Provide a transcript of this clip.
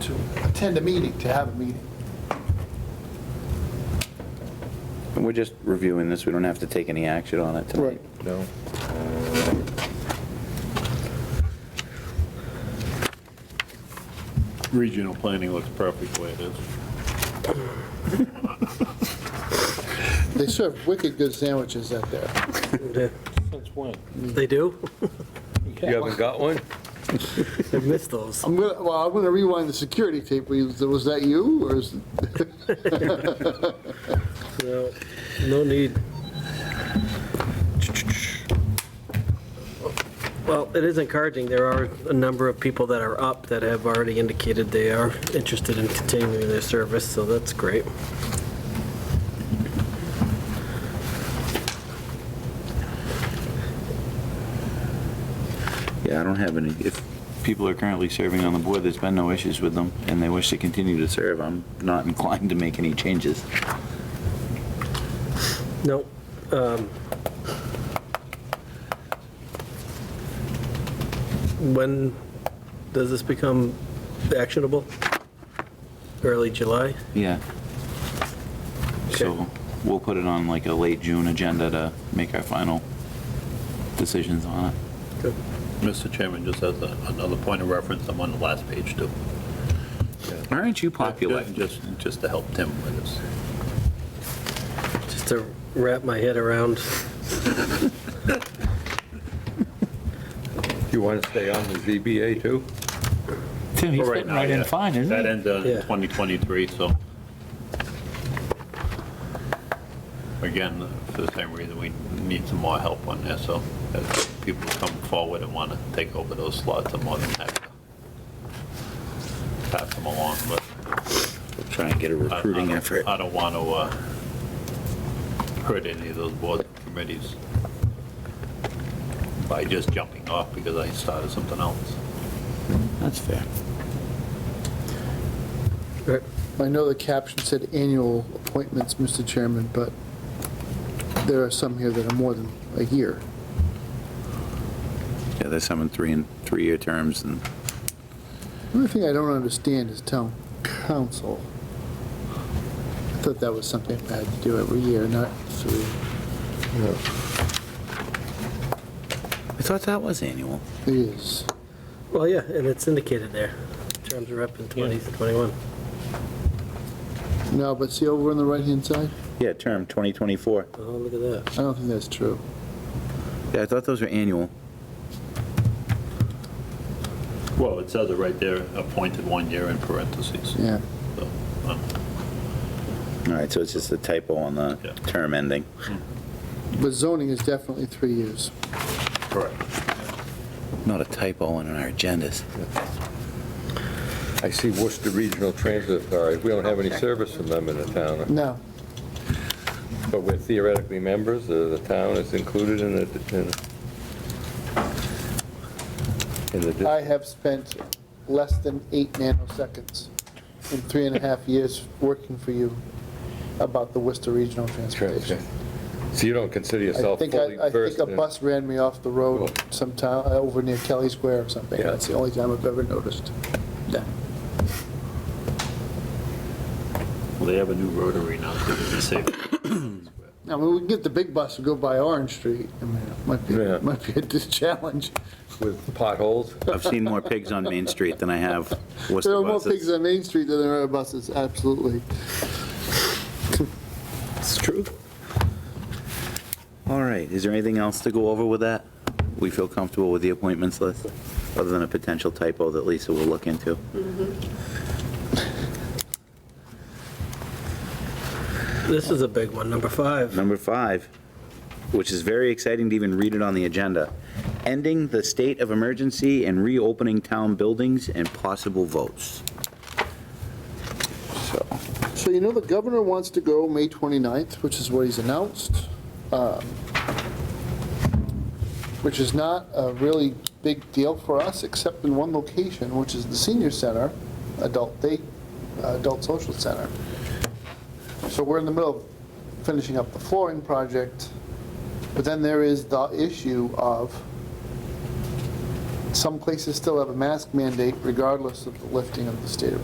to attend a meeting, to have a meeting. We're just reviewing this, we don't have to take any action on it tonight. No. Regional planning looks perfect the way it is. They serve wicked good sandwiches out there. Since when? They do? You haven't got one? I miss those. I'm gonna, well, I'm gonna rewind the security tape. Was was that you, or is, No, no need. Well, it is encouraging. There are a number of people that are up that have already indicated they are interested in continuing their service, so that's great. Yeah, I don't have any, if people are currently serving on the board, there's been no issues with them, and they wish to continue to serve, I'm not inclined to make any changes. No, um, when does this become actionable? Early July? Yeah. So we'll put it on like a late June agenda to make our final decisions on it. Mr. Chairman, just as a- another point of reference, I'm on the last page too. Aren't you popular? Just, just to help Tim with this. just to wrap my head around. You want to stay on the ZBA too? Tim, he's Well, right fitting now, right in yeah. fine, That isn't ends in Yeah. 2023, so. Again, for the same reason, we need some more help on this, so as people come forward and want to take over those slots, I'm more than happy to pass them along, but. he? Try and get a I- I recruiting don't- effort. I don't want to hurt any of those board committees by just jumping off because I started something else. That's fair. I know the caption said annual appointments, Mr. Chairman, but there are some here that are more than a year. Yeah, there's some in three and, three-year terms and The only thing I don't understand is town council. I thought that was something I had to do every year, not three. I thought that was annual. It is. Well, yeah, and it's indicated there. Terms are up in 2021. No, but see over on the right-hand side? Yeah, term 2024. Oh, look at that. I don't think that's true. Yeah, I thought those were annual. Well, it says it right there, appointed one year in parentheses. Yeah. So, um, All right, so it's just a typo on the Yeah. term ending. But zoning is definitely three years. Correct. Not a typo on our agendas. I see Worcester Regional Transit Authority. We don't have any service from them in the town, No, but we're theoretically members. uh, The town is included in the, in in the, I dis- have spent less than eight nanoseconds in three and a half years working for you about the Worcester Regional Transportation. so you don't consider I yourself think, fully I I think versed a in... bus ran me off the road sometime, uh, over near Kelly Square or something. Yeah. That's the only time I've ever noticed. Yeah. Well, they have a new rotary now, so they'll be safe. I mean, we can get the big bus and go by Orange Street. I mean, it might be, Yeah. might be a dis- challenge. With potholes? I've seen more pigs on Main Street than I have There Worcester are more pigs buses. on Main Street than there are buses, absolutely. It's true. All right, is there anything else to go over with that? We feel comfortable with the appointments list, other than a potential typo that Lisa will look into. This is a big one, number five. Number five, which is very exciting to even read it on the agenda, ending the state of emergency and reopening town buildings and possible votes. So, So you know, the governor wants to go May 29th, which is what he's announced, um, which is not a really big deal for us, except in one location, which is the senior center, adult day, uh, adult social center. So we're in the middle of finishing up the flooring project, but then there is the issue of some places still have a mask mandate regardless of the lifting of the state of